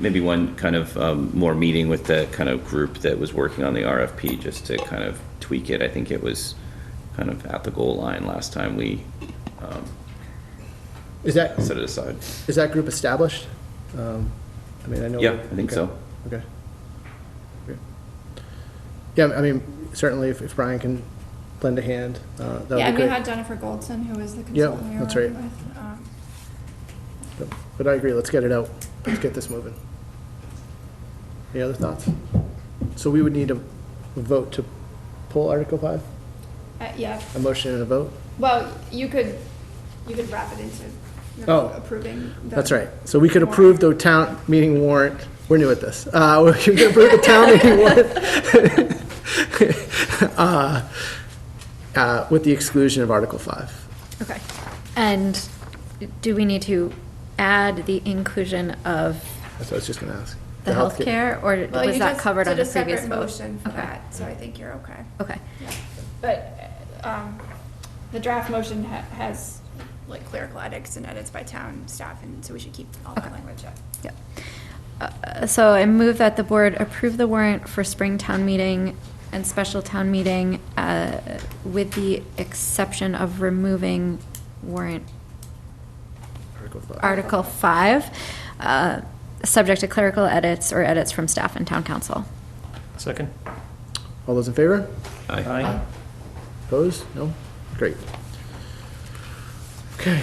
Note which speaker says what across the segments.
Speaker 1: maybe one kind of um, more meeting with the kind of group that was working on the RFP just to kind of tweak it. I think it was kind of at the goal line last time we um,
Speaker 2: Is that,
Speaker 1: set it aside.
Speaker 2: is that group established? Um, I mean, I know.
Speaker 1: Yeah, I think so.
Speaker 2: Okay. Okay. Yeah, I mean, certainly if, if Brian can lend a hand, uh, that would
Speaker 3: Yeah, and
Speaker 2: be
Speaker 3: we
Speaker 2: great.
Speaker 3: had Jennifer Goldson, who was the
Speaker 2: Yeah,
Speaker 3: consultant we were
Speaker 2: that's
Speaker 3: working
Speaker 2: right.
Speaker 3: with. um,
Speaker 2: But- But I agree, let's get it out. Let's get this moving. Any other thoughts? So we would need a vote to pull Article Five,
Speaker 3: uh, Yeah,
Speaker 2: a motion and a vote?
Speaker 3: well, you could, you could wrap it into you know,
Speaker 2: Oh,
Speaker 3: approving. the-
Speaker 2: That's right. So we could approve the town meeting warrant, we're new at this. Uh, we could approve the town meeting warrant. uh, uh, With the exclusion of Article Five.
Speaker 4: Okay. And do we need to add the inclusion of
Speaker 2: That's what I was just gonna ask.
Speaker 4: the healthcare, or
Speaker 3: Well,
Speaker 4: was
Speaker 3: you
Speaker 4: that
Speaker 3: just
Speaker 4: covered on
Speaker 3: did
Speaker 4: the
Speaker 3: a separate
Speaker 4: previous vote?
Speaker 3: Motion for
Speaker 4: Okay.
Speaker 3: that, so I think you're okay.
Speaker 4: Okay,
Speaker 3: Yeah. But, um, the draft motion ha- has like clerical edits and edits by town staff, and so we should keep all that
Speaker 4: Okay.
Speaker 3: language up.
Speaker 4: yep. Uh, So I move that the board approve the warrant for spring town meeting and special town meeting uh, with the exception of removing warrant
Speaker 2: Article Five.
Speaker 4: Article 5, uh, subject to clerical edits or edits from staff and town council.
Speaker 5: Second?
Speaker 2: All those in favor?
Speaker 1: Aye.
Speaker 5: Aye.
Speaker 2: Opposed? No? Great. Okay.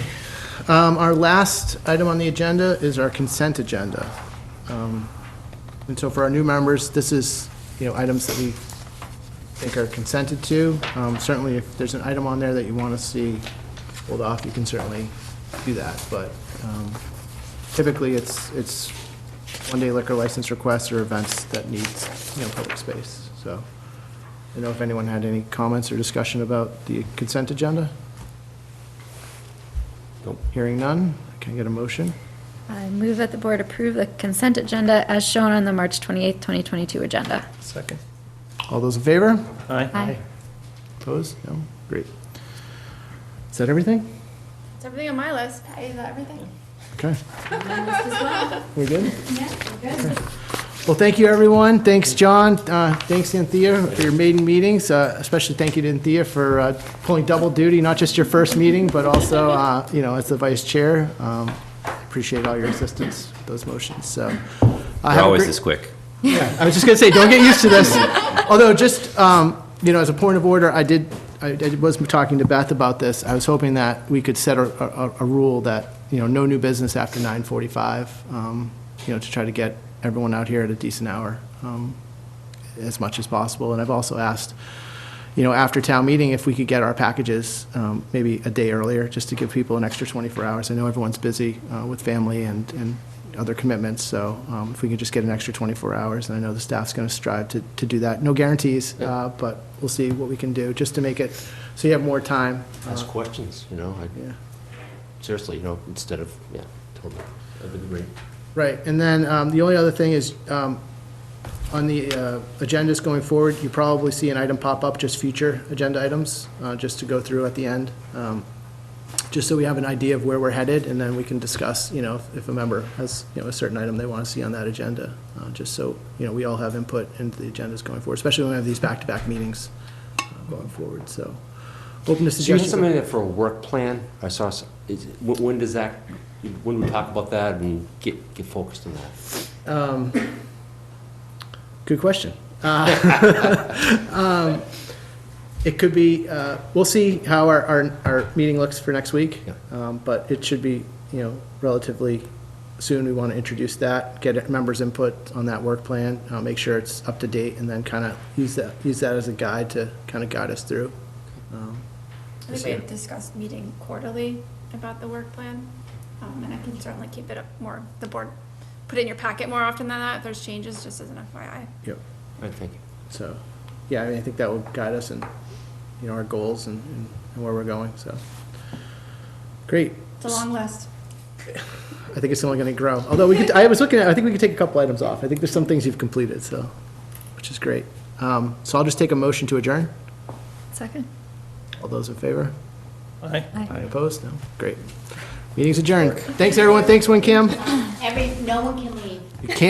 Speaker 2: Um, Our last item on the agenda is our consent agenda. Um, And so for our new members, this is, you know, items that we think are consented to. Um, Certainly, if there's an item on there that you want to see pulled off, you can certainly do that. But um, typically, it's, it's one-day liquor license requests or events that needs, you know, public space, so. I don't know if anyone had any comments or discussion about the consent agenda?
Speaker 1: Nope.
Speaker 2: Hearing none, can I get a motion?
Speaker 4: I move that the board approve the consent agenda as shown on the March 28th, 2022 agenda.
Speaker 5: Second?
Speaker 2: All those in favor?
Speaker 5: Aye.
Speaker 4: Aye.
Speaker 2: Opposed? No? Great. Is that everything?
Speaker 3: It's everything on my list. Is that everything?
Speaker 2: Okay. We're good? Yeah, we're good. Well, thank you, everyone. Thanks, John. Uh, Thanks, Anthea, for your maiden meetings. Uh, Especially thank you to Anthea for uh, pulling double duty, not just your first meeting, but also, uh, you know, as the vice chair. Um, Appreciate all your assistance with those motions, so. uh, have
Speaker 1: We're
Speaker 2: a
Speaker 1: always
Speaker 2: great-
Speaker 1: this quick.
Speaker 2: I was just gonna say, don't get used to this. Although, just, um, you know, as a point of order, I did, I, I was talking to Beth about this. I was hoping that we could set a, a, a rule that, you know, no new business after nine forty-five, um, you know, to try to get everyone out here at a decent hour, um, as much as possible. And I've also asked, you know, after town meeting, if we could get our packages, um, maybe a day earlier, just to give people an extra twenty-four hours. I know everyone's busy, uh, with family and, and other commitments, so, um, if we could just get an extra twenty-four hours, and I know the staff's gonna strive to, to do that. No guarantees, uh, but we'll see what we can do, just to make it, so you have more time. uh,
Speaker 6: Ask questions, you know, I-
Speaker 2: Yeah.
Speaker 6: seriously, you know, instead of, yeah, totally, I would agree.
Speaker 2: Right, and then um, the only other thing is, um, on the uh, agendas going forward, you probably see an item pop up, just future agenda items, uh, just to go through at the end, um, just so we have an idea of where we're headed, and then we can discuss, you know, if a member has, you know, a certain item they want to see on that agenda, uh, just so, you know, we all have input into the agendas going forward, especially when we have these back-to-back meetings uh, going forward, so. Open to
Speaker 6: So you have
Speaker 2: suggestions.
Speaker 6: something for a work plan? I saw, s- is, when, when does that, when we talk about that and get, get focused on that?
Speaker 2: Um, Good question. Uh, um, It could be, uh, we'll see how our, our, our meeting looks for next week.
Speaker 6: Yeah.
Speaker 2: Um, But it should be, you know, relatively soon. We want to introduce that, get members' input on that work plan, uh, make sure it's up to date, and then kind of use that, use that as a guide to kind of guide us through. Um,
Speaker 3: I think we had discussed meeting quarterly about the work plan, um, and I can certainly keep it up more, the board, put it in your packet more often than that, if there's changes, just as an FYI.
Speaker 2: Yep.
Speaker 6: I think,
Speaker 2: So, yeah, I mean, I think that will guide us in, you know, our goals and, and- and where we're going, so. Great.
Speaker 3: It's a long list.
Speaker 2: I think it's only gonna grow. Although we could, I was looking at, I think we could take a couple items off. I think there's some things you've completed, so, which is great. Um, so I'll just take a motion to adjourn.
Speaker 4: Second?
Speaker 2: All those in favor?
Speaker 5: Aye.
Speaker 1: Aye.
Speaker 2: Opposed? No? Great. Meeting's adjourned. Thanks, everyone. Thanks, WinCam.
Speaker 7: Every, no one can leave.
Speaker 2: You can't